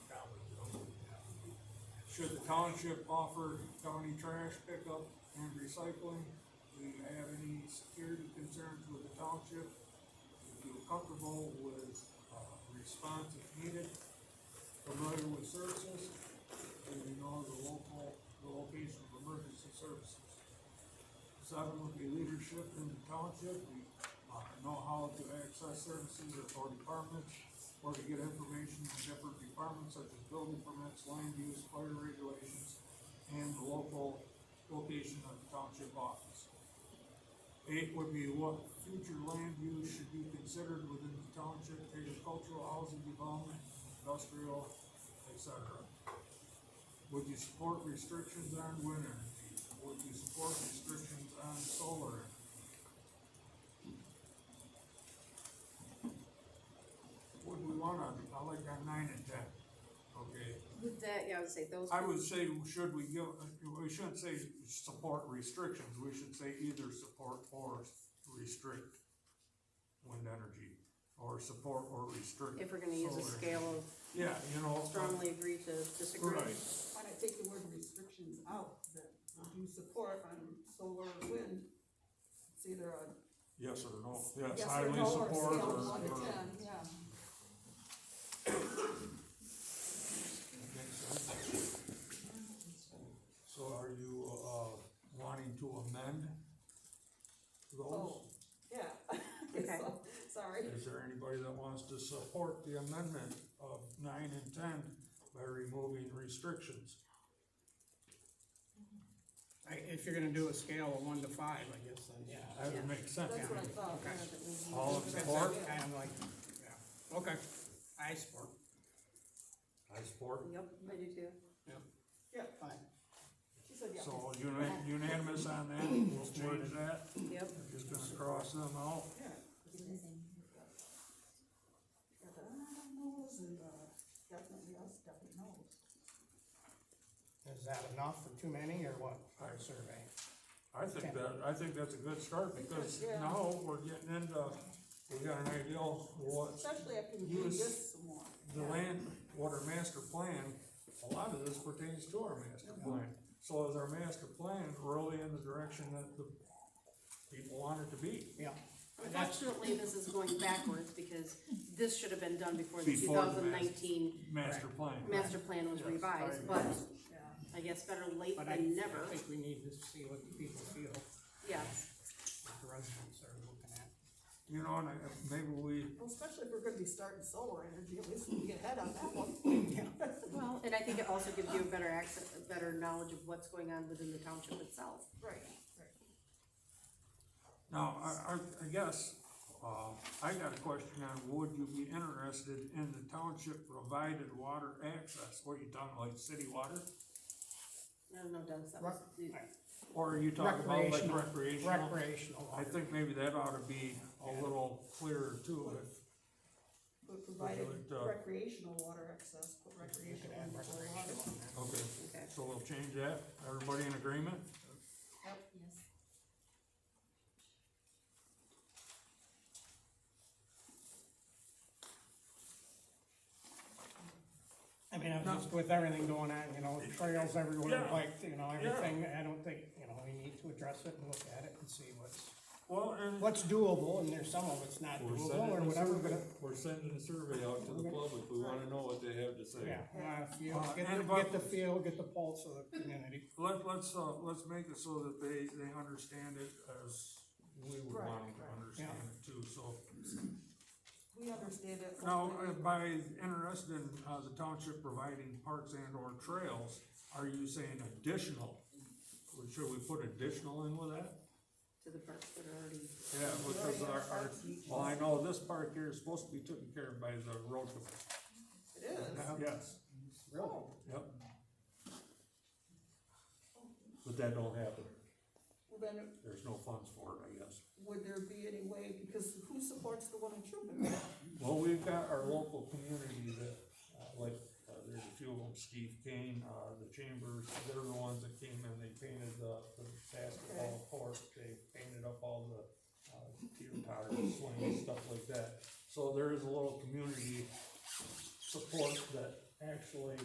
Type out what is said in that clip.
Should the township offer county trash pickup and recycling? Do you have any security concerns with the township? If you're comfortable with, uh, response if needed, familiar with services, and you know the local, the location of emergency services. Seven would be leadership in the township, we, uh, know how to access services or for departments, or to get information from different departments such as building permits, land use, fire regulations, and the local location of the township office. Eight would be what future land use should be considered within the township, agricultural, housing development, industrial, et cetera. Would you support restrictions on wind energy? Would you support restrictions on solar? energy? Would we want on, I like on nine and ten, okay? With that, yeah, I would say those. I would say, should we give, we shouldn't say support restrictions, we should say either support or restrict wind energy, or support or restrict. If we're gonna use a solar. scale of Yeah, you know. uh, strongly agree to disagree. Right, Why not take the word restrictions out, that you support on solar or wind? It's either a yes or no, yes, yes or Oh, highly no or a support scale or, of one to or- ten, yeah. So are you, uh, wanting to amend those? Oh, yeah. Okay, so, sorry. Is there anybody that wants to support the amendment of nine and ten by removing restrictions? I, if you're gonna do a scale of one to five, I guess, then, yeah. That would make sense. That's what I thought. Okay. yeah, that we- All in That's support? kind of like, yeah, okay, I support, I support. Yep, I do too. Yeah, fine. she said, yeah. So uni- unanimous on that, we'll change that, Yep, just gonna cross them out. Yeah. Got the, I don't know, and, uh, definitely us, definitely knows. Is that enough for too many, or what, our survey? I think that, I think that's a good start, because Yeah. now we're getting into, we got an idea of what Especially after we do Use this some more. the Yeah. land, what our master plan, a lot of this pertains to our master plan. So is our master plan really in the direction that the people want it to be? Yeah, And that's- unfortunately, this is going backwards because this should have been done before the two Before the thousand nineteen Master plan. master plan was Yes, revised, I- but Yeah. I guess better late but I, than I never, think we need to see what the people feel, what yes. the residents are looking at. You know, and I- maybe we, Well, especially if we're gonna be starting solar energy, at least we can get ahead on that one. Well, and I think it also gives you a better access, a better knowledge of what's going on within the township itself. Right, right. Now, I, I, I guess, uh, I got a question on, would you be interested in the township provided water access? What are you talking, like city water? I don't know, Dennis, that was, Rec- Or are you talking about like Recreational. recreational? Recreational I water, think maybe that ought to be a little clearer too, if, But provided Would, uh, recreational water access, put recreational add in the whole water. recreational on that. okay, okay. so we'll change that. Everybody in agreement? Yep, yes. I mean, I'm just with everything going on, you know, trails everywhere, Yeah. like, you know, everything, I don't think, you know, we need to address it and look at it and see what's, Well, and what's doable, and there's some of it's not We're doable, or sending a whatever, survey, but, we're sending a survey out to the public, we wanna know what they have to say. yeah, uh, feel, Uh, get and the, about- get the feel, get the pulse of the community. let, let's, uh, let's make it so that they, they understand it as we would Right, want them right. to understand it too, so. We understand it. Now, uh, by interested in, uh, the township providing parks and or trails, are you saying additional? Or Should we put additional in with that? To the parts that are already, Yeah, because our, our, well, I know this park here is supposed to be taken care of by the road commission. It is. Yes, Really? yep. But that don't happen, Well, then, there's no funds for it, I guess. would there be any way, because who supports the one in Truman? Well, we've got our local community that, uh, like, uh, there's a few of them, Steve Kane, uh, the chambers, they're the ones that came in, they painted the, the basketball court, they painted up all the, uh, teeter totter swings, stuff like that. So there is a little community support that actually